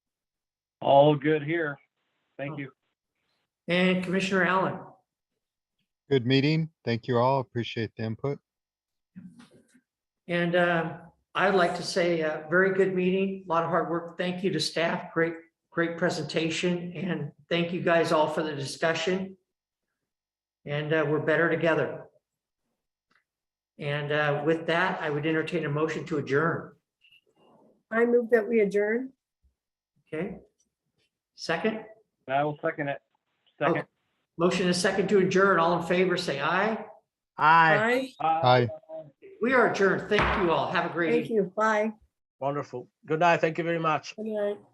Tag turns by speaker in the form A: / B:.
A: All good here. Thank you.
B: And Commissioner Allen.
C: Good meeting. Thank you all. Appreciate the input.
B: And uh, I'd like to say, uh, very good meeting, a lot of hard work. Thank you to staff. Great, great presentation. And thank you guys all for the discussion. And uh, we're better together. And uh, with that, I would entertain a motion to adjourn.
D: I move that we adjourn.
B: Okay? Second,
A: And I will second it. Second.
B: motion is second to adjourn. All in favor, say aye.
E: Aye,
D: Aye.
A: Aye.
C: Hi,
B: We are adjourned. Thank you all. Have a great evening.
D: Thank you. Bye.
E: wonderful. Good night. Thank you very much.
D: Good night.